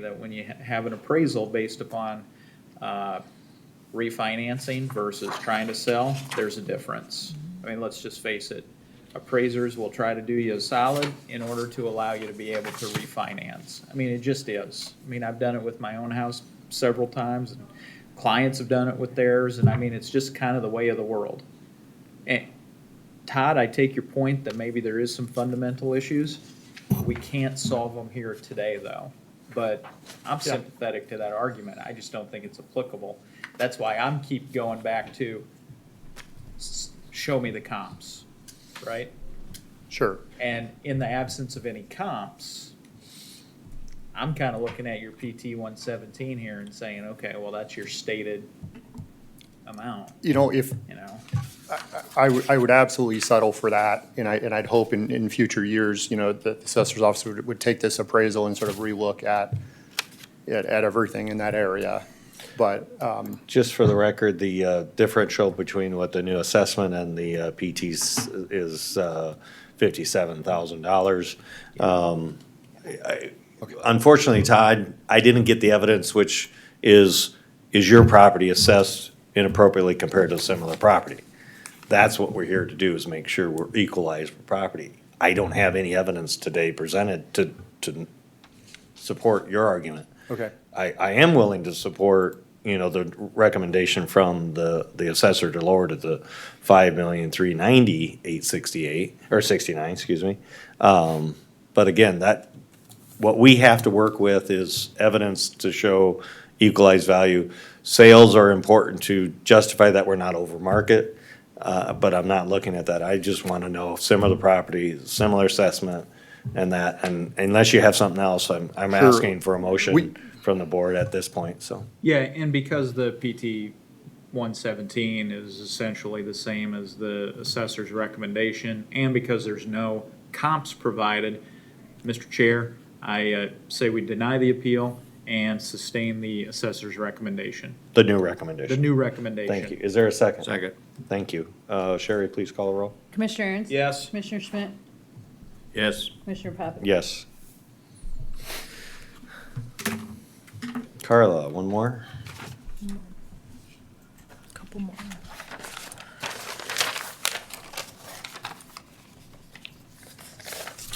that when you ha- have an appraisal based upon uh, refinancing versus trying to sell, there's a difference. I mean, let's just face it, appraisers will try to do you a solid in order to allow you to be able to refinance. I mean, it just is. I mean, I've done it with my own house several times, and clients have done it with theirs, and I mean, it's just kind of the way of the world. And Todd, I take your point that maybe there is some fundamental issues. We can't solve them here today, though. But I'm sympathetic to that argument. I just don't think it's applicable. That's why I'm keep going back to s- show me the comps, right? Sure. And in the absence of any comps, I'm kind of looking at your PT one seventeen here and saying, okay, well, that's your stated amount, You know, if, you know? I would, I would absolutely settle for that, and I, and I'd hope in, in future years, you know, that the assessor's office would, would take this appraisal and sort of relook at, at, at everything in that area. But, uh, Just for the record, the uh, differential between what the new assessment and the uh, PT's is uh, $57,000. Um, I- Unfortunately, Todd, I didn't get the evidence, which is, is your property assessed inappropriately compared to a similar property? That's what we're here to do, is make sure we're equalized for property. I don't have any evidence today presented to, to support your argument. okay, I, I am willing to support, you know, the recommendation from the, the assessor to lower to the five million, three ninety, eight sixty-eight, or sixty-nine, excuse me. Um, but again, that, what we have to work with is evidence to show equalized value. Sales are important to justify that we're not over market, uh, but I'm not looking at that. I just want to know if similar property, similar assessment, and that, and unless you have something else, I'm, I'm Sure. asking for a We- motion from the board at this point, so. Yeah, and because the PT one seventeen is essentially the same as the assessor's recommendation, and because there's no comps provided, Mr. Chair, I uh, say we deny the appeal and sustain the assessor's recommendation, The new the recommendation. new recommendation. Thank you. Is there a second? Second. Thank you. Uh, Sherry, please call the roll. Commissioner Ernst? Yes. Commissioner Schmidt? Yes. Commissioner Poppins? Yes. Carla, one more? Couple more.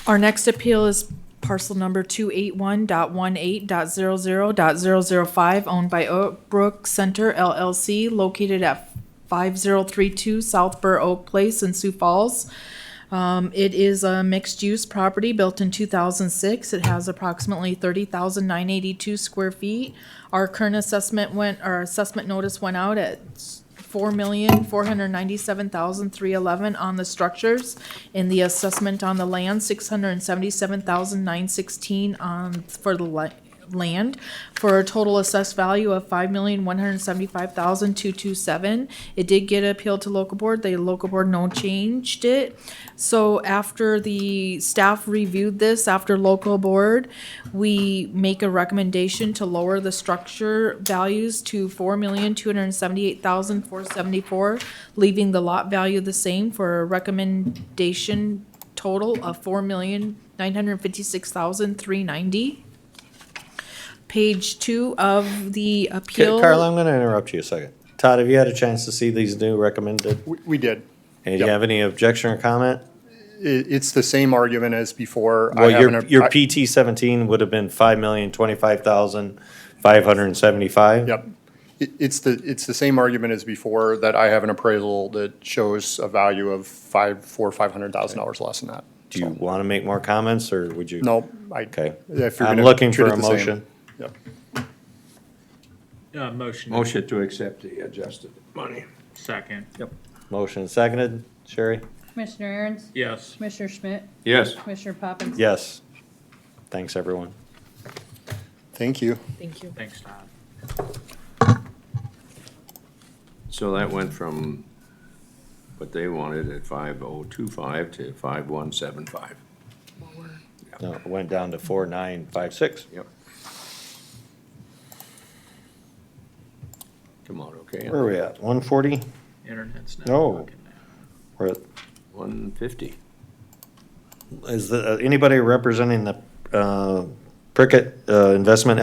Our next appeal is parcel number two eight one dot one eight dot zero zero dot zero zero five, owned by Oak Brook Center LLC, located at five zero three two South Burr Oak Place in Sioux Falls. Um, it is a mixed-use property built in two thousand six. It has approximately thirty thousand nine eighty-two square feet. Our current assessment went, our assessment notice went out at four million, four hundred ninety-seven thousand, three eleven on the structures. And the assessment on the land, six hundred and seventy-seven thousand, nine sixteen on, for the li- land, for a total assessed value of five million, one hundred seventy-five thousand, two two seven. It did get appealed to local board, the local board no changed it. So after the staff reviewed this, after local board, we make a recommendation to lower the structure values to four million, two hundred and seventy-eight thousand, four seventy-four, leaving the lot value the same for a recommendation total of four million, nine hundred and fifty-six thousand, three ninety. Page two of the Okay, appeal. Carla, I'm gonna interrupt you a second. Todd, have you had a chance to see these new recommended? we, we did. And do Yep. you have any objection or comment? It, it's the same argument as before. I Well, have your, an- your I- PT seventeen would have been five million, twenty-five thousand, five hundred and seventy-five? Yep. It, it's the, it's the same argument as before, that I have an appraisal that shows a value of five, four, five hundred thousand dollars less than that. Do you wanna make more comments, or would you? No, I. Okay. if you're I'm gonna looking treat for it a the same. motion. Yep. Uh, motion. Motion to accept the adjusted money. Second. Yep. Motion seconded. Sherry? Commissioner Ernst? Yes. Commissioner Schmidt? Yes. Commissioner Poppins? Yes. Thanks, everyone. Thank you. Thank you. Thanks, Todd. So that went from what they wanted at five oh two five to five one seven five. No, it went down to four, nine, five, six. Yep. Come on, okay? Where are we at? One forty? Internet's not No. working now. We're at One fifty. Is the, uh, anybody representing the uh, Prickett uh, Investment